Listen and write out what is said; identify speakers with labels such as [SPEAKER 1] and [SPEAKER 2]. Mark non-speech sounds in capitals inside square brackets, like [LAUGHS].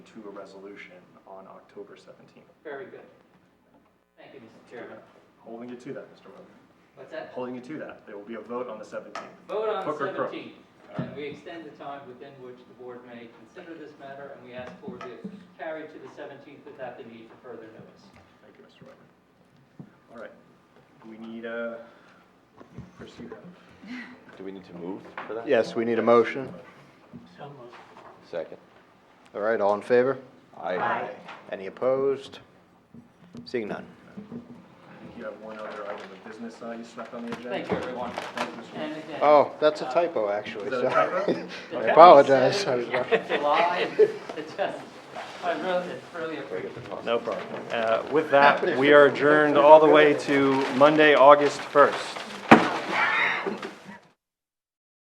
[SPEAKER 1] to a resolution on October 17th.
[SPEAKER 2] Very good. Thank you, Mr. Chairman.
[SPEAKER 1] Holding you to that, Mr. Mobley.
[SPEAKER 2] What's that?
[SPEAKER 1] Holding you to that. There will be a vote on the 17th.
[SPEAKER 2] Vote on
[SPEAKER 1] Hook or crook?
[SPEAKER 2] 17, and we extend the time within which the board may consider this matter, and we ask for the carry to the 17th without the need for further notice.
[SPEAKER 1] Thank you, Mr. Whitman. All right, we need uh, a, pursue that.
[SPEAKER 3] Do we need to move for that?
[SPEAKER 4] Yes, we need a motion.
[SPEAKER 3] Second.
[SPEAKER 4] All right, all in favor?
[SPEAKER 3] Aye.
[SPEAKER 4] Any opposed? Seeing none.
[SPEAKER 1] I think you have one other item of business uh, you stuck on the agenda.
[SPEAKER 2] Thank you, everyone.
[SPEAKER 1] Thank you, Mr. Whitman.
[SPEAKER 2] And again.
[SPEAKER 4] Oh, that's a typo, actually,
[SPEAKER 1] Is that a
[SPEAKER 4] sorry. [LAUGHS]
[SPEAKER 1] typo?
[SPEAKER 4] I apologize. I was wrong.
[SPEAKER 2] [LAUGHS] July, it just, I really, it's really appreciate it.
[SPEAKER 5] No problem. Uh, With that, we are adjourned all the way to Monday, August 1st.